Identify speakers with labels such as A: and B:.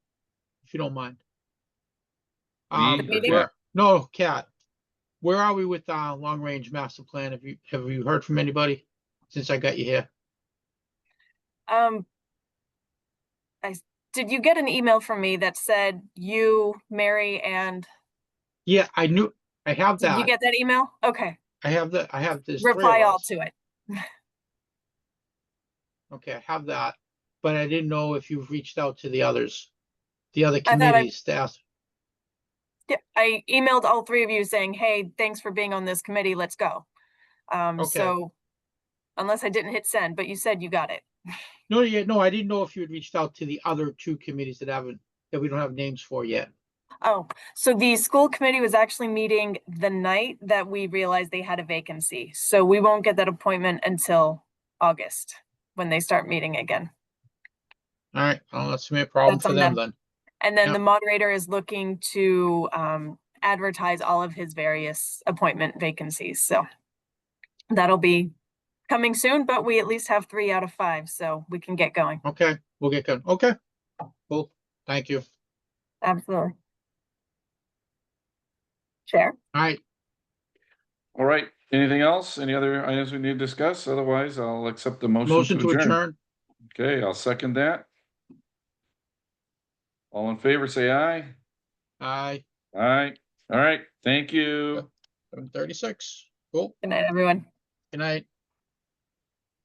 A: if you don't mind.
B: Me
A: Um,
B: or
A: where-
B: Kat?
A: no, Kat, where are we with, uh, long-range master plan? Have you, have you heard from anybody since I got you here?
C: Um, I, s- did you get an email from me that said you, Mary, and,
A: Yeah, I knew, I have
C: did you
A: that.
C: get that email? Okay,
A: I have the, I have this. three of
C: reply all
A: us.
C: to it.
A: Okay, I have that, but I didn't know if you've reached out to the others, the other
C: I thought I-
A: committees to ask.
C: Yeah, I emailed all three of you saying, hey, thanks for being on this committee, let's go. Um,
A: Okay.
C: so, unless I didn't hit send, but you said you got it.
A: No, yeah, no, I didn't know if you had reached out to the other two committees that haven't, that we don't have names for yet.
C: Oh, so the school committee was actually meeting the night that we realized they had a vacancy. So we won't get that appointment until August, when they start meeting again.
A: All right, well, that's gonna be a problem
C: That's
A: for
C: on
A: them
C: them.
A: then.
C: And
A: Yeah.
C: then the moderator is looking to um advertise all of his various appointment vacancies, so. That'll be coming soon, but we at least have three out of five, so we can get going.
A: Okay, we'll get going. Okay, cool. Thank you.
C: Absolutely. Chair,
A: All right,
B: All right, anything else? Any other items we need to discuss? Otherwise, I'll accept the
A: motion to adjourn.
B: Okay, I'll second that. All in favor, say aye.
A: Aye,
B: Aye. All right, thank you.
A: seven thirty-six. Cool.
C: good night, everyone.
A: Good night.